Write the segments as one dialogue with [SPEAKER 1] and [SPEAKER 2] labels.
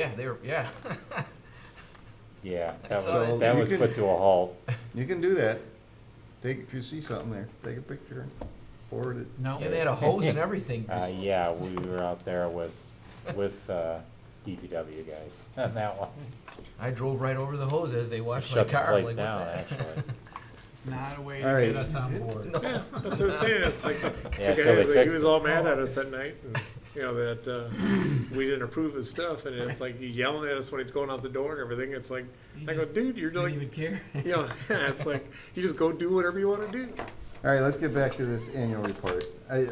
[SPEAKER 1] Yeah, they were, yeah.
[SPEAKER 2] Yeah,
[SPEAKER 1] I
[SPEAKER 2] that
[SPEAKER 1] saw
[SPEAKER 2] was,
[SPEAKER 1] it.
[SPEAKER 2] that
[SPEAKER 3] You
[SPEAKER 2] was
[SPEAKER 3] could-
[SPEAKER 2] put to a halt.
[SPEAKER 3] You can do that. Take, if you see something there, take a picture, and forward it.
[SPEAKER 4] No.
[SPEAKER 1] Yeah, they had a hose and everything.
[SPEAKER 2] Uh,
[SPEAKER 1] just-
[SPEAKER 2] yeah, we were out there with, with, uh, DPW guys on that one.
[SPEAKER 1] I drove right over the hose as they washed my
[SPEAKER 2] Shut the
[SPEAKER 1] car. I'm
[SPEAKER 2] place
[SPEAKER 1] like, what's
[SPEAKER 2] down, eh?
[SPEAKER 1] that?
[SPEAKER 2] actually.
[SPEAKER 4] It's not a way
[SPEAKER 3] All
[SPEAKER 4] to
[SPEAKER 3] right.
[SPEAKER 4] get us on board.
[SPEAKER 5] Yeah, that's what I'm saying, it's like, the
[SPEAKER 2] Yeah,
[SPEAKER 5] guy,
[SPEAKER 2] till they
[SPEAKER 5] was like- he
[SPEAKER 2] fixed
[SPEAKER 5] was
[SPEAKER 2] it.
[SPEAKER 5] all mad at us that night, and, you know, that, uh, we didn't approve his stuff, and it's like, he yelling at us when he's going out the door and everything, it's like,
[SPEAKER 4] You
[SPEAKER 5] I go,
[SPEAKER 4] just
[SPEAKER 5] dude, you're
[SPEAKER 4] Didn't
[SPEAKER 5] doing,
[SPEAKER 4] even care.
[SPEAKER 5] you know, it's like, you just go do whatever you wanna do.
[SPEAKER 3] All right, let's get back to this annual report. I,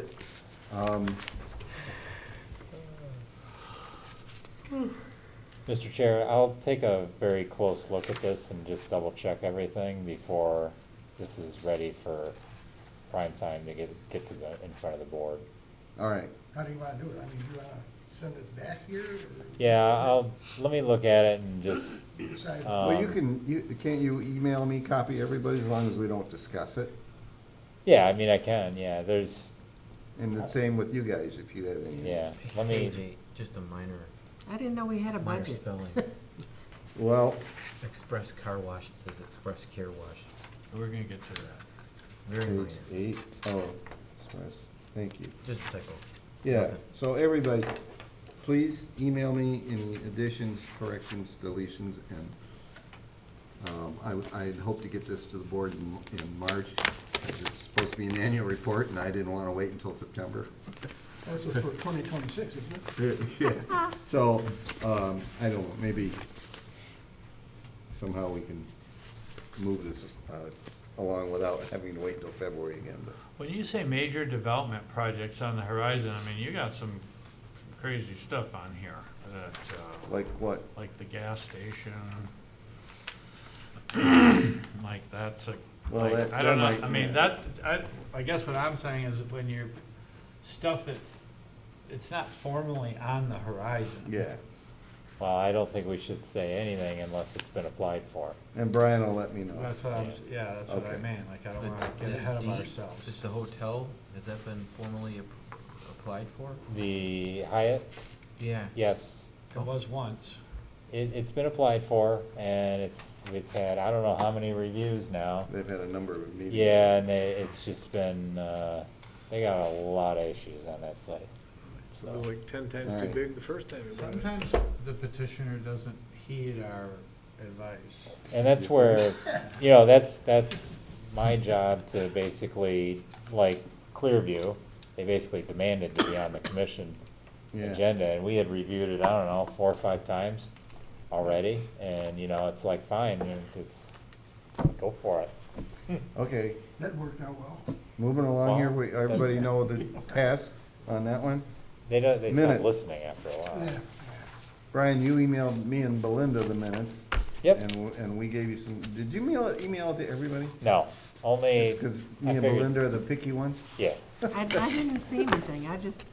[SPEAKER 3] um,
[SPEAKER 2] Mr. Chair, I'll take a very close look at this and just double check everything before this is ready for prime time to get, get to the, in front of the board.
[SPEAKER 3] all right,
[SPEAKER 6] How do you wanna do it? I mean, do you wanna send it back here or
[SPEAKER 2] Yeah, I'll, let me look at it and just,
[SPEAKER 6] decide?
[SPEAKER 3] well, you
[SPEAKER 2] Um,
[SPEAKER 3] can, you, can't you email me, copy everybody, as long as we don't discuss it?
[SPEAKER 2] yeah, I mean, I can, yeah, there's,
[SPEAKER 3] And the same with you guys, if you have any.
[SPEAKER 2] yeah, let me,
[SPEAKER 1] Page eight, Just a minor,
[SPEAKER 7] I didn't know we had a
[SPEAKER 1] minor
[SPEAKER 7] budget.
[SPEAKER 1] spelling.
[SPEAKER 3] Well,
[SPEAKER 1] Express car wash, it says express care wash.
[SPEAKER 4] We're gonna get to that.
[SPEAKER 1] Very minor,
[SPEAKER 3] page eight, oh, sorry. thank you.
[SPEAKER 1] just a typo.
[SPEAKER 3] Yeah,
[SPEAKER 1] Nothing.
[SPEAKER 3] so everybody, please email me any additions, corrections, deletions, and um, I, would- I had hoped to get this to the board in, in March. 'cause It's supposed to be an annual report, and I didn't want to wait until September.
[SPEAKER 6] Oh, This is for twenty twenty-six, isn't it?
[SPEAKER 3] Yeah. So, um, I don't, know, maybe somehow we can move this uh, along without having to wait until February again, but.
[SPEAKER 8] When you say major development projects on the horizon, I mean, you got some crazy stuff on here that, uh,
[SPEAKER 3] Like what?
[SPEAKER 8] like the gas station. Like that's a,
[SPEAKER 3] Well,
[SPEAKER 8] like,
[SPEAKER 3] that-
[SPEAKER 8] I don't know,
[SPEAKER 3] that might-
[SPEAKER 8] I mean, that, I, I guess what I'm saying is that when you're, stuff that's, it's not formally on the horizon.
[SPEAKER 3] Yeah.
[SPEAKER 2] well, I don't think we should say anything unless it's been applied for.
[SPEAKER 3] And Brian will let me know.
[SPEAKER 8] That's what I'm, s- yeah, that's what I
[SPEAKER 3] Okay.
[SPEAKER 8] mean, like, I
[SPEAKER 1] The-
[SPEAKER 8] don't wanna get
[SPEAKER 1] this
[SPEAKER 8] ahead of
[SPEAKER 1] deed,
[SPEAKER 8] ourselves.
[SPEAKER 1] Is the hotel, has that been formally ap- applied for?
[SPEAKER 2] The Hyatt,
[SPEAKER 1] Yeah.
[SPEAKER 2] yes,
[SPEAKER 8] It was once.
[SPEAKER 2] It, it's been applied for, and it's, it's had, I don't know how many reviews now.
[SPEAKER 3] They've had a number of meetings.
[SPEAKER 2] Yeah, and they, it's just been, uh, they got a lot of issues on that site.
[SPEAKER 5] So it was like ten times too
[SPEAKER 3] Alright.
[SPEAKER 5] big the first time we brought it.
[SPEAKER 4] Sometimes the petitioner doesn't heed our advice.
[SPEAKER 2] And that's where, you know, that's, that's my job to basically, like Clearview, they basically demanded to be on the commission
[SPEAKER 3] Yeah.
[SPEAKER 2] agenda, and we had reviewed it, I don't know, four or five times already, and, you know, it's like, fine, it's, go for it.
[SPEAKER 3] Okay,
[SPEAKER 6] That worked out well.
[SPEAKER 3] moving along here,
[SPEAKER 2] Well,
[SPEAKER 3] we, everybody know the task on that one.
[SPEAKER 2] They don't, they stop
[SPEAKER 3] Minutes.
[SPEAKER 2] listening after a while.
[SPEAKER 6] Yeah.
[SPEAKER 3] Brian, you emailed me and Belinda the minutes.
[SPEAKER 2] Yep.
[SPEAKER 3] And, w- and we gave you some, did you mail, it- email it to everybody?
[SPEAKER 2] No, only.
[SPEAKER 3] Because
[SPEAKER 2] I
[SPEAKER 3] me and
[SPEAKER 2] figured-
[SPEAKER 3] Belinda are the picky ones?
[SPEAKER 2] Yeah,
[SPEAKER 7] I, I didn't see anything, I just.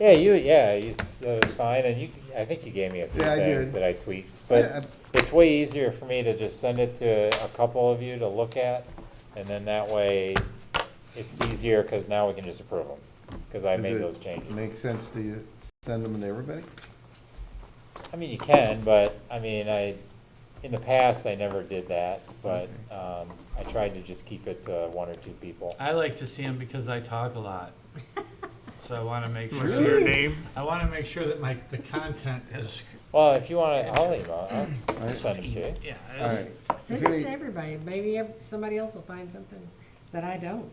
[SPEAKER 2] yeah, you, yeah, you, s- it was fine, and you, I think you gave me a few
[SPEAKER 3] Yeah, I
[SPEAKER 2] things
[SPEAKER 3] did.
[SPEAKER 2] that I tweaked.
[SPEAKER 3] Yeah,
[SPEAKER 2] But it's way easier for me to just send it to a couple of you to look at, and then that way, it's easier, because now we can just approve them, because I
[SPEAKER 3] Does
[SPEAKER 2] made
[SPEAKER 3] it
[SPEAKER 2] those changes.
[SPEAKER 3] Make sense to you, send them to everybody?
[SPEAKER 2] I mean, you can, but, I mean, I, in the past, I never did that, but, um, I tried to just keep it to one or two people.
[SPEAKER 8] I like to see them because I talk a lot. So I wanna make
[SPEAKER 5] You wanna see their
[SPEAKER 8] sure,
[SPEAKER 5] name?
[SPEAKER 8] I wanna make sure that my, the content is,
[SPEAKER 2] Well, if you wanna, I'll email, I'll
[SPEAKER 3] right.
[SPEAKER 2] send them to you.
[SPEAKER 8] yeah,
[SPEAKER 3] All
[SPEAKER 8] it's-
[SPEAKER 3] right.
[SPEAKER 7] Send it to everybody, maybe ev- somebody else will find something that I don't.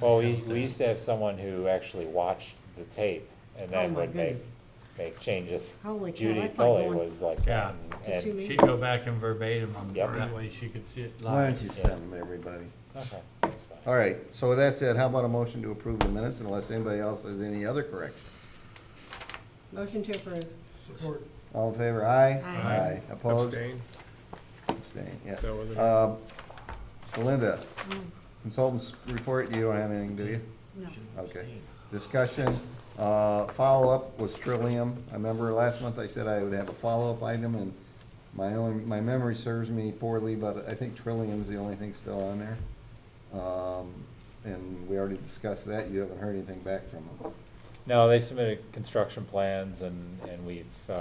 [SPEAKER 2] Well, we, we used to have someone who actually watched the tape and
[SPEAKER 7] Oh
[SPEAKER 2] then
[SPEAKER 7] my
[SPEAKER 2] would make,
[SPEAKER 7] goodness.
[SPEAKER 2] make changes.
[SPEAKER 7] Holy cow,
[SPEAKER 2] Judy
[SPEAKER 7] that's like
[SPEAKER 2] Tully
[SPEAKER 7] going
[SPEAKER 2] was like
[SPEAKER 8] Yeah.
[SPEAKER 2] that.
[SPEAKER 7] to
[SPEAKER 2] and-
[SPEAKER 7] two
[SPEAKER 2] and-
[SPEAKER 7] meetings.
[SPEAKER 8] She'd go back in verbatim, on-
[SPEAKER 2] Yep.
[SPEAKER 8] that way she could see it live.
[SPEAKER 3] Why don't you
[SPEAKER 2] Yeah.
[SPEAKER 3] send them to everybody?
[SPEAKER 2] Okay, that's fine.
[SPEAKER 3] All right, so with that said, how about a motion to approve the minutes unless anybody else has any other corrections?
[SPEAKER 7] Motion to approve.
[SPEAKER 6] Support.
[SPEAKER 3] All in favor, aye?
[SPEAKER 7] Aye.
[SPEAKER 3] Aye, opposed?
[SPEAKER 5] Abstain.
[SPEAKER 3] Abstain, yeah.
[SPEAKER 5] That wasn't-
[SPEAKER 3] Um, Belinda, consultants report, you don't have anything, do you?
[SPEAKER 7] No.
[SPEAKER 3] Okay. Discussion, uh, follow-up was Trillium. I remember last month I said I would have a follow-up item, and my own, my memory serves me poorly, but I think Trillium's the only thing still on there. Um, And we already discussed that, you haven't heard anything back from them.
[SPEAKER 2] No, they submitted construction plans and, and we've, uh,